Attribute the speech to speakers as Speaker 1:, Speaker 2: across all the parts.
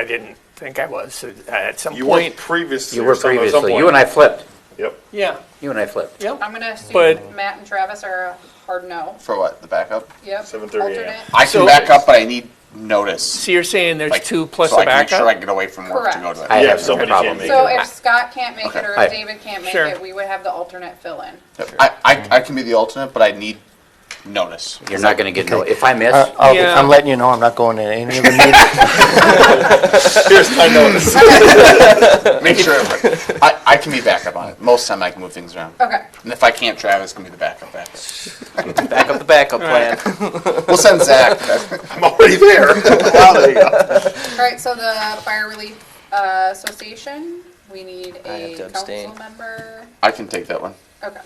Speaker 1: I didn't think I was, so uh, at some
Speaker 2: You weren't
Speaker 1: point.
Speaker 2: previously.
Speaker 3: You were previously, you and I flipped,
Speaker 2: Yep.
Speaker 1: Yeah,
Speaker 3: you and I flipped.
Speaker 1: yep.
Speaker 4: I'm gonna assume
Speaker 1: But-
Speaker 4: Matt and Travis are a hard no.
Speaker 5: For what, the backup?
Speaker 4: Yep.
Speaker 2: 7:30 a.m.
Speaker 4: Alternate.
Speaker 5: I can
Speaker 1: So-
Speaker 5: back up, but I need notice.
Speaker 1: So you're saying there's
Speaker 5: Like,
Speaker 1: two plus
Speaker 5: so
Speaker 1: a
Speaker 5: I can make sure I
Speaker 1: backup?
Speaker 5: can get away from work to go to
Speaker 4: Correct.
Speaker 5: that.
Speaker 3: I
Speaker 2: Yeah,
Speaker 3: have
Speaker 2: if
Speaker 3: no
Speaker 2: somebody
Speaker 3: problem.
Speaker 2: can't make
Speaker 4: So
Speaker 2: it.
Speaker 4: if Scott can't make it or
Speaker 3: Aye.
Speaker 4: if David can't make
Speaker 1: Sure.
Speaker 4: it, we would have the alternate fill in.
Speaker 5: I, I, I can be the alternate, but I need notice.
Speaker 3: You're not gonna get, no. if I miss,
Speaker 6: Uh, I'll-
Speaker 1: Yeah.
Speaker 6: I'm letting you know I'm not going to any of the meetings.
Speaker 2: Here's my notice.
Speaker 5: Make sure everybody- I, I can be backup on it. Most time I can move things around.
Speaker 4: Okay.
Speaker 5: And if I can't, Travis can be the backup. backup.
Speaker 7: Back up the backup plan.
Speaker 5: We'll send Zach.
Speaker 2: I'm already there. Wow, there you go.
Speaker 4: All right. So the Fire Relief uh, Association, we need
Speaker 7: I have
Speaker 4: a
Speaker 7: to abstain.
Speaker 4: council member.
Speaker 5: I can take that one.
Speaker 4: Okay.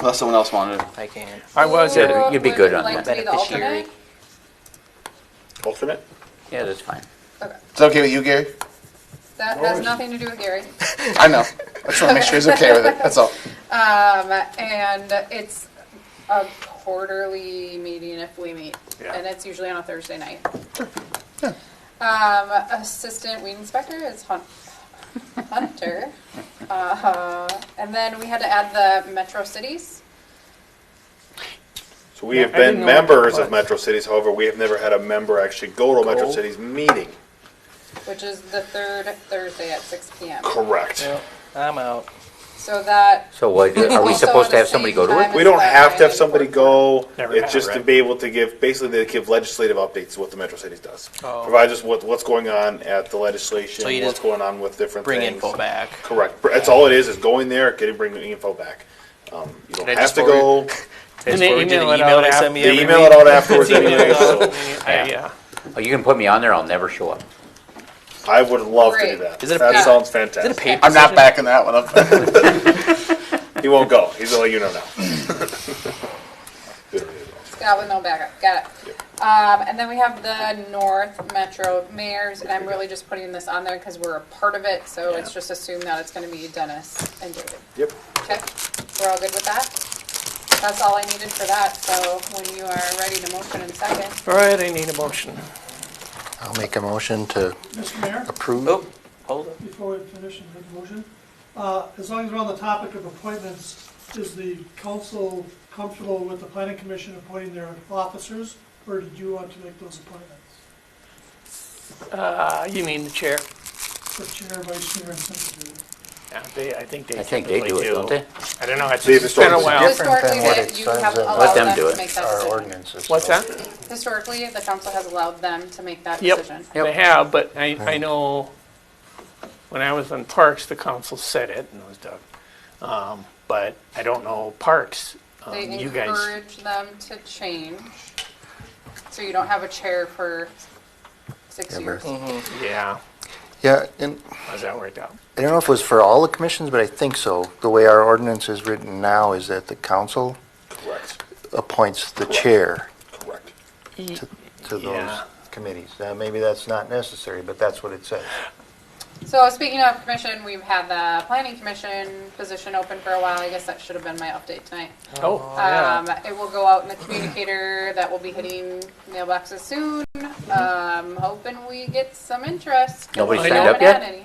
Speaker 5: Unless someone else wanted it.
Speaker 7: I can.
Speaker 1: I was
Speaker 4: Who
Speaker 1: at
Speaker 3: Yeah.
Speaker 1: it.
Speaker 3: you'd be
Speaker 4: would
Speaker 3: good on
Speaker 4: like
Speaker 3: that.
Speaker 4: to be the
Speaker 7: Beneficiary.
Speaker 4: alternate?
Speaker 2: Alternate?
Speaker 3: yeah, that's fine.
Speaker 4: Okay.
Speaker 5: Is that okay with you, Gary?
Speaker 4: That has nothing to do with Gary.
Speaker 5: I know. I just want to make sure he's okay with it. That's all.
Speaker 4: Um, and it's a quarterly meeting if we meet,
Speaker 1: Yeah.
Speaker 4: and it's usually on a Thursday night. Um, assistant weed inspector is Hun- Hunter. Uh, and then we had to add the Metro Cities.
Speaker 2: So we have
Speaker 1: I didn't
Speaker 2: been
Speaker 1: know what that
Speaker 2: members
Speaker 1: was.
Speaker 2: of Metro Cities, however, we have never had a member actually go to a Metro
Speaker 1: Go.
Speaker 2: Cities meeting.
Speaker 4: Which is the third Thursday at six PM.
Speaker 2: Correct.
Speaker 7: Yep, I'm out.
Speaker 4: So that,
Speaker 3: So what, are we
Speaker 4: Also
Speaker 3: supposed to
Speaker 4: at
Speaker 3: have
Speaker 4: the
Speaker 3: somebody go
Speaker 4: same
Speaker 3: to
Speaker 4: time-
Speaker 3: it?
Speaker 2: We don't have to have somebody go,
Speaker 1: Never
Speaker 2: it's
Speaker 1: had,
Speaker 2: just to
Speaker 1: right?
Speaker 2: be able to give, basically they give legislative updates, is what the Metro Cities does.
Speaker 7: Oh.
Speaker 2: Provides us with what's going on at the
Speaker 7: So you
Speaker 2: legislation, what's
Speaker 7: just
Speaker 2: going on with different
Speaker 7: Bring
Speaker 2: things.
Speaker 7: info back.
Speaker 2: Correct. Br- That's all it is, is going there, getting, bringing the info back. Um, You don't
Speaker 7: Can I
Speaker 2: have
Speaker 7: just
Speaker 2: to
Speaker 7: forward
Speaker 2: go,
Speaker 1: And
Speaker 7: Just
Speaker 1: they
Speaker 7: forward you the
Speaker 1: email it
Speaker 7: email
Speaker 1: out
Speaker 7: they
Speaker 1: af-
Speaker 7: send me
Speaker 2: they
Speaker 7: every
Speaker 2: email
Speaker 7: week.
Speaker 2: it out afterwards anyway, so
Speaker 1: Yeah, yeah.
Speaker 3: Oh, you can put me on there, I'll never show up.
Speaker 2: I would love to do
Speaker 4: Great.
Speaker 2: that.
Speaker 7: Is it a
Speaker 2: That
Speaker 7: paper-
Speaker 2: sounds
Speaker 7: Is it a
Speaker 2: fantastic.
Speaker 7: paper?
Speaker 5: I'm not
Speaker 7: decision?
Speaker 5: backing that one up.
Speaker 2: He won't go, he's gonna let you know now.
Speaker 4: Scott with no backup, got it. Um, and then we have the North Metro Mayors, and I'm really just putting this on there because we're a part of it, so it's just assumed that it's gonna be Dennis and David.
Speaker 2: Yep.
Speaker 4: Okay, we're all good with that? That's all I needed for that, so when you are ready to motion in second,
Speaker 1: All right, I need a motion.
Speaker 6: I'll make a motion to
Speaker 8: Mr. Mayor,
Speaker 6: approve.
Speaker 7: Oh, hold on.
Speaker 8: before we finish and make the motion, uh, as long as we're on the topic of appointments, is the council comfortable with the planning commission appointing their officers, or did you want to make those appointments?
Speaker 1: Uh, you mean the chair?
Speaker 8: The chair, vice chair, and secretary.
Speaker 1: Yeah, they, I think they
Speaker 3: I think they
Speaker 1: typically
Speaker 3: do it, don't they?
Speaker 1: I don't know, it's
Speaker 2: They've
Speaker 1: it's been a
Speaker 2: historically-
Speaker 1: while.
Speaker 6: Different than
Speaker 4: Historically,
Speaker 6: what
Speaker 4: they-
Speaker 6: it
Speaker 4: you
Speaker 6: says
Speaker 4: have
Speaker 6: in
Speaker 4: allowed
Speaker 3: them
Speaker 4: them
Speaker 3: do
Speaker 4: to
Speaker 3: it.
Speaker 4: make that
Speaker 6: our
Speaker 4: decision.
Speaker 6: ordinances.
Speaker 1: What's that?
Speaker 4: historically, the council has allowed them to make that
Speaker 1: Yep,
Speaker 4: decision.
Speaker 3: Yep.
Speaker 1: they have, but I, I know, when I was on Parks, the council said it, and it was Doug. Um, But I don't know Parks, um,
Speaker 4: They
Speaker 1: you guys,
Speaker 4: encourage them to change, so you don't have a chair for six
Speaker 6: Ever.
Speaker 4: years.
Speaker 1: yeah,
Speaker 6: Yeah, and
Speaker 1: how's that worked out?
Speaker 6: I don't know if it was for all the commissions, but I think so. The way our ordinance is written now is that the council
Speaker 2: Correct,
Speaker 6: appoints the chair
Speaker 2: correct.
Speaker 6: to those
Speaker 1: Yeah.
Speaker 6: committees. Now, maybe that's not necessary, but that's what it says.
Speaker 4: So speaking of commission, we've had the planning commission position open for a while. I guess that should have been my update tonight.
Speaker 1: Oh,
Speaker 4: Um, it will go out in the communicator that will be hitting mailboxes soon. Um, hoping we get some interest. 'cause
Speaker 3: Nobody
Speaker 4: we
Speaker 1: signed
Speaker 4: haven't
Speaker 3: up yet?
Speaker 4: had any.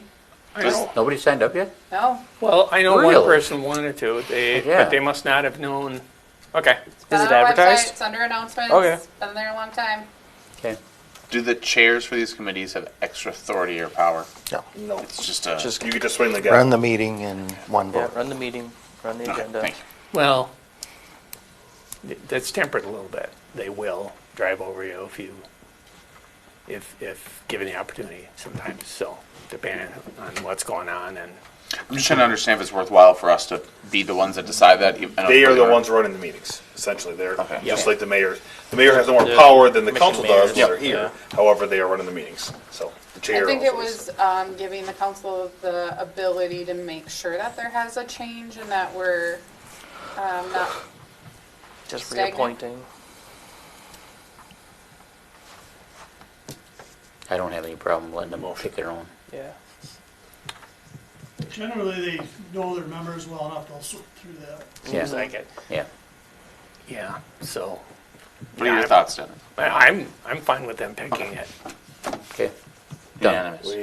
Speaker 1: I know.
Speaker 3: Nobody signed up yet?
Speaker 4: No.
Speaker 1: Well, I know one
Speaker 3: Really?
Speaker 1: person wanted to, they,
Speaker 3: Yeah.
Speaker 1: but they must not have known, okay.
Speaker 4: It's been
Speaker 7: Is it
Speaker 4: on our website,
Speaker 7: advertised?
Speaker 4: It's under announcements.
Speaker 7: Okay.
Speaker 4: Been there a long time.
Speaker 3: Okay.
Speaker 5: Do the chairs for these committees have extra authority or power?
Speaker 6: No.
Speaker 2: No,
Speaker 5: It's just a.
Speaker 7: Just
Speaker 2: you could just swing the
Speaker 6: Run
Speaker 2: guy.
Speaker 6: the meeting in one
Speaker 7: yeah,
Speaker 6: vote.
Speaker 7: run the meeting, run the
Speaker 5: Okay,
Speaker 7: agenda.
Speaker 5: thank you.
Speaker 1: Well, th- that's tempered a little bit. They will drive over you if you, if, if given the opportunity sometimes, so depending on what's going on and,
Speaker 5: I'm just trying to understand if it's worthwhile for us to be the ones that decide that. even- I don't
Speaker 2: They are the
Speaker 5: think
Speaker 2: ones running the meetings, essentially. They're,
Speaker 5: Okay.
Speaker 2: just
Speaker 7: Yeah.
Speaker 2: like the mayor. The mayor has more
Speaker 7: The
Speaker 2: power than the
Speaker 7: commission
Speaker 2: council does when
Speaker 7: mayors.
Speaker 2: they're here.
Speaker 7: Yeah.
Speaker 2: However, they are running the meetings, so the chair.
Speaker 4: I think it
Speaker 2: also is.
Speaker 4: was um, giving the council the ability to make sure that there has a change and that we're um, not
Speaker 7: Just
Speaker 4: Stagnant.
Speaker 7: reappointing.
Speaker 3: I don't have any problem letting them pick their own.
Speaker 7: Yeah.
Speaker 8: Generally, they know their members well enough, they'll sort through that.
Speaker 3: Yeah,
Speaker 1: seems like it,
Speaker 3: yeah.
Speaker 1: yeah, so.
Speaker 5: What
Speaker 1: Yeah,
Speaker 5: are your
Speaker 1: I'm-
Speaker 5: thoughts, Dennis?
Speaker 1: I- I'm, I'm fine with them picking it.
Speaker 3: Okay.
Speaker 9: Done.
Speaker 3: Unanimous.